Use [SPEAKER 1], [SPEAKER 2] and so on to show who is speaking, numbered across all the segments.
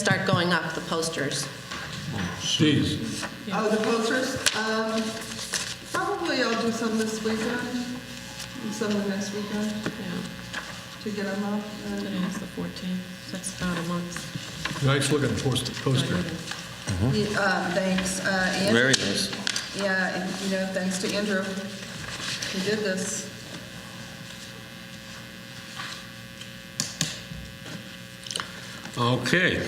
[SPEAKER 1] start going up, the posters.
[SPEAKER 2] Geez,
[SPEAKER 3] Oh, the posters? Um, probably I'll do some this weekend, and some the next weekend
[SPEAKER 1] Yeah,
[SPEAKER 3] to get them up. and-
[SPEAKER 1] today is the 14th, so that's about a month.
[SPEAKER 2] nice looking post- poster.
[SPEAKER 3] Yeah, uh, Thanks, uh, Andrew.
[SPEAKER 4] Very nice.
[SPEAKER 3] Yeah, and, you know, thanks to Andrew, he did this.
[SPEAKER 5] Okay.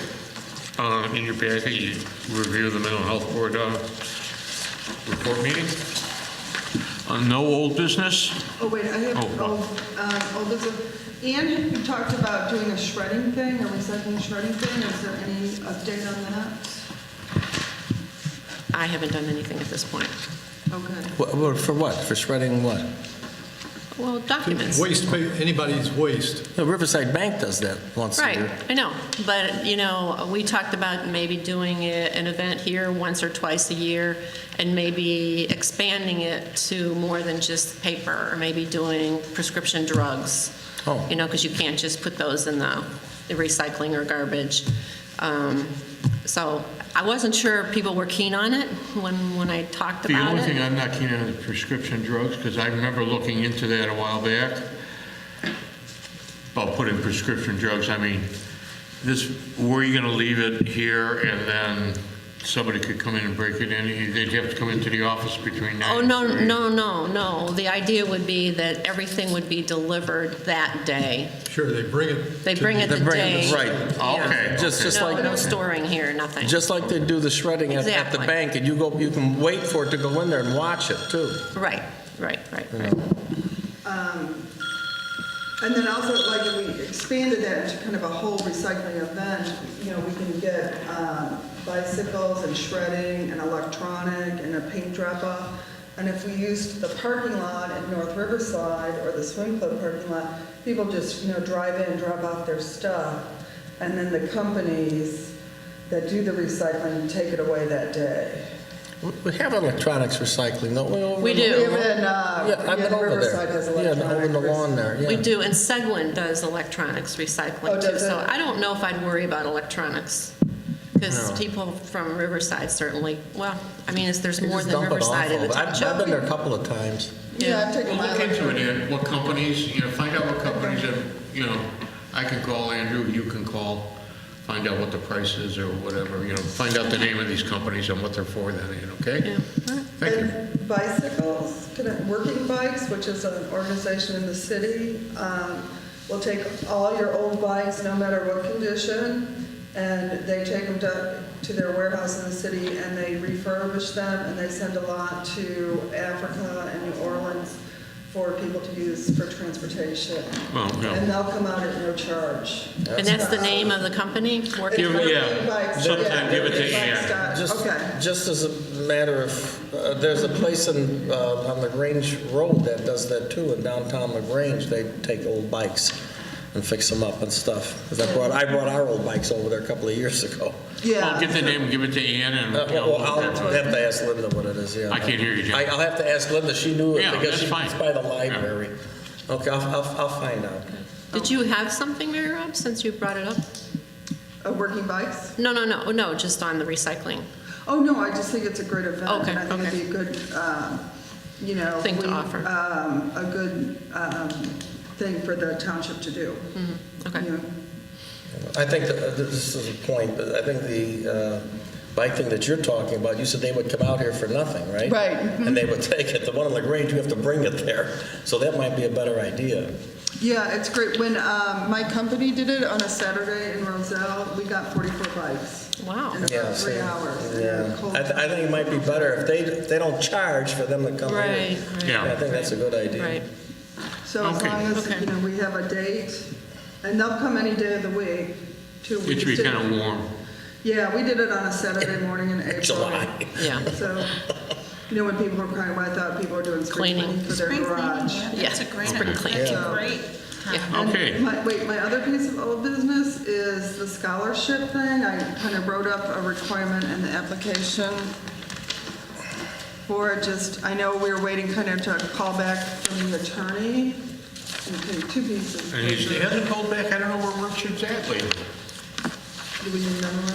[SPEAKER 5] Uh, In your packet, you review the mental health board uh, report meeting. Uh, No old business?
[SPEAKER 3] Oh, wait, I have,
[SPEAKER 5] Oh,
[SPEAKER 3] oh, um, oh, this is, Ann, you talked about doing a shredding thing, a recycling shredding thing, is there any update on that?
[SPEAKER 1] I haven't done anything at this point.
[SPEAKER 3] Okay.
[SPEAKER 4] Wha- wha- For what? For shredding what?
[SPEAKER 1] Well, documents.
[SPEAKER 2] Waste, pa- anybody's waste.
[SPEAKER 4] No, Riverside Bank does that once a
[SPEAKER 1] Right,
[SPEAKER 4] year.
[SPEAKER 1] I know, but, you know, we talked about maybe doing a- an event here once or twice a year, and maybe expanding it to more than just paper, or maybe doing prescription drugs.
[SPEAKER 4] Oh.
[SPEAKER 1] You know, because you can't just put those in the the recycling or garbage. Um, So I wasn't sure if people were keen on it when, when I talked
[SPEAKER 5] The
[SPEAKER 1] about
[SPEAKER 5] only thing
[SPEAKER 1] it.
[SPEAKER 5] I'm not keen on is prescription drugs, because I remember looking into that a while back. About putting prescription drugs, I mean, this, were you going to leave it here and then somebody could come in and break it in? They'd have to come into the office between nine
[SPEAKER 1] Oh,
[SPEAKER 5] and
[SPEAKER 1] no,
[SPEAKER 5] three.
[SPEAKER 1] no, no, no. The idea would be that everything would be delivered that day.
[SPEAKER 2] Sure, they bring it.
[SPEAKER 1] They
[SPEAKER 2] to
[SPEAKER 1] bring it
[SPEAKER 2] the-
[SPEAKER 1] the
[SPEAKER 4] They bring it-
[SPEAKER 1] day.
[SPEAKER 4] right.
[SPEAKER 1] Yeah.
[SPEAKER 5] Oh, Okay.
[SPEAKER 4] Just-
[SPEAKER 5] okay.
[SPEAKER 4] just
[SPEAKER 1] No,
[SPEAKER 4] like-
[SPEAKER 1] no storing here, nothing.
[SPEAKER 4] Just like they do the shredding at- at the
[SPEAKER 1] Exactly.
[SPEAKER 4] bank, and you go, you can wait for it to go in there and watch it, too.
[SPEAKER 1] Right, right, right, right.
[SPEAKER 3] And then also, like, if we expanded that into kind of a whole recycling event, you know, we can get um, bicycles and shredding and electronic and a paint drop-off. And if we used the parking lot at North Riverside or the swim club parking lot, people just, you know, drive in, drop off their stuff, and then the companies that do the recycling take it away that day.
[SPEAKER 4] We- We have electronics recycling, don't we? over
[SPEAKER 1] We
[SPEAKER 4] in
[SPEAKER 1] do.
[SPEAKER 4] the-
[SPEAKER 3] Even, uh,
[SPEAKER 4] Yeah, I've been
[SPEAKER 3] yeah,
[SPEAKER 4] over
[SPEAKER 3] Riverside
[SPEAKER 4] there.
[SPEAKER 3] has
[SPEAKER 4] Yeah, over
[SPEAKER 3] electronic.
[SPEAKER 4] the lawn there, yeah.
[SPEAKER 1] We do, and Seguin does electronics
[SPEAKER 3] Oh,
[SPEAKER 1] recycling too.
[SPEAKER 3] does
[SPEAKER 1] So
[SPEAKER 3] it?
[SPEAKER 1] I don't know if I'd worry about electronics, because people from Riverside certainly, well, I mean, it's- there's
[SPEAKER 4] You
[SPEAKER 1] more
[SPEAKER 4] just
[SPEAKER 1] than
[SPEAKER 4] dump it
[SPEAKER 1] Riverside
[SPEAKER 4] off
[SPEAKER 1] in the
[SPEAKER 4] of- I've-
[SPEAKER 1] township.
[SPEAKER 4] I've been there a couple of times.
[SPEAKER 3] Yeah, I've taken
[SPEAKER 5] Well,
[SPEAKER 3] my
[SPEAKER 5] look into it, Ed, what companies, you know, find out what companies are, you know, I can call Andrew, you can call, find out what the price is or whatever, you know, find out the name of these companies and what they're for then, Ed, okay? Thank you.
[SPEAKER 3] And bicycles, can I- Working Bikes, which is an organization in the city, um, will take all your old bikes, no matter what condition, and they take them to, to their warehouse in the city, and they refurbish them, and they send a lot to Africa and New Orleans for people to use for transportation.
[SPEAKER 5] Well, yeah.
[SPEAKER 3] And they'll come out at no charge.
[SPEAKER 1] And that's the name of the company? Working-
[SPEAKER 5] Give- yeah, sometime give it to Ann.
[SPEAKER 4] Just,
[SPEAKER 3] Okay.
[SPEAKER 4] just as a matter of, uh, there's a place in, uh, on LaGrange Road that does that too, in downtown LaGrange, they take old bikes and fix them up and stuff. 'Cause I brought, I brought our old bikes over there a couple of years ago.
[SPEAKER 3] Yeah.
[SPEAKER 5] I'll get the name, give it to Ann and.
[SPEAKER 4] Uh,
[SPEAKER 5] you know,
[SPEAKER 4] Well, I'll have to ask Linda what it is, yeah.
[SPEAKER 5] I can't hear you, Jim.
[SPEAKER 4] I- I'll have to ask Linda, she knew it
[SPEAKER 5] Yeah,
[SPEAKER 4] because
[SPEAKER 5] that's
[SPEAKER 4] she-
[SPEAKER 5] fine.
[SPEAKER 4] it's by the
[SPEAKER 5] Yeah.
[SPEAKER 4] library. Okay, I'll, I'll, I'll find out.
[SPEAKER 1] Did you have something, Mary Rob, since you brought it up?
[SPEAKER 3] Uh, Working Bikes?
[SPEAKER 1] No, no, no, no, just on the recycling.
[SPEAKER 3] Oh, no, I just think it's a great event.
[SPEAKER 1] Okay,
[SPEAKER 3] and I think it'd
[SPEAKER 1] okay.
[SPEAKER 3] be a good, um, you know.
[SPEAKER 1] Thing to
[SPEAKER 3] we-
[SPEAKER 1] offer.
[SPEAKER 3] um, A good um, thing for the township to do.
[SPEAKER 1] Mm-hmm, Okay.
[SPEAKER 3] You know,
[SPEAKER 4] I think that, uh, this is a point, but I think the uh, bike thing that you're talking about, you said they would come out here for nothing, right?
[SPEAKER 3] Right.
[SPEAKER 1] mm-hmm.
[SPEAKER 4] And they would take it, the one on LaGrange, you have to bring it there, so that might be a better idea.
[SPEAKER 3] Yeah, it's great. When um, my company did it on a Saturday in Roselle, we got 44 bikes.
[SPEAKER 1] Wow.
[SPEAKER 3] In
[SPEAKER 4] Yeah,
[SPEAKER 3] about three
[SPEAKER 4] so-
[SPEAKER 3] hours. in a
[SPEAKER 4] Yeah,
[SPEAKER 3] cold-
[SPEAKER 4] I, th- I think it might be better if they, if they don't charge for them to come
[SPEAKER 1] Right,
[SPEAKER 4] here.
[SPEAKER 1] right.
[SPEAKER 5] Yeah.
[SPEAKER 4] I think that's a good idea.
[SPEAKER 1] Right.
[SPEAKER 3] So as
[SPEAKER 5] Okay.
[SPEAKER 3] long as,
[SPEAKER 1] Okay.
[SPEAKER 3] you know, we have a date, and they'll come any day of the week, two
[SPEAKER 5] It
[SPEAKER 3] weeks.
[SPEAKER 5] should be kind of warm.
[SPEAKER 3] Yeah, we did it on a Saturday morning in April.
[SPEAKER 4] July.
[SPEAKER 1] Yeah.
[SPEAKER 3] So, you know, when people were crying, I thought people were doing spring
[SPEAKER 1] Cleaning.
[SPEAKER 3] cleaning for their
[SPEAKER 6] Spring cleaning,
[SPEAKER 3] garage.
[SPEAKER 6] yeah,
[SPEAKER 1] Yeah,
[SPEAKER 6] that's a great,
[SPEAKER 1] spring
[SPEAKER 6] that's
[SPEAKER 1] cleaning.
[SPEAKER 6] a great time.
[SPEAKER 3] And
[SPEAKER 5] Okay.
[SPEAKER 3] my- Wait, my other piece of old business is the scholarship thing. I kind of wrote up a requirement in the application for it, just, I know we were waiting kind of to call back from the attorney. Okay, Two pieces.
[SPEAKER 5] And he's- he hasn't called back, I don't know where Richard's at lately.
[SPEAKER 3] Do we need another one?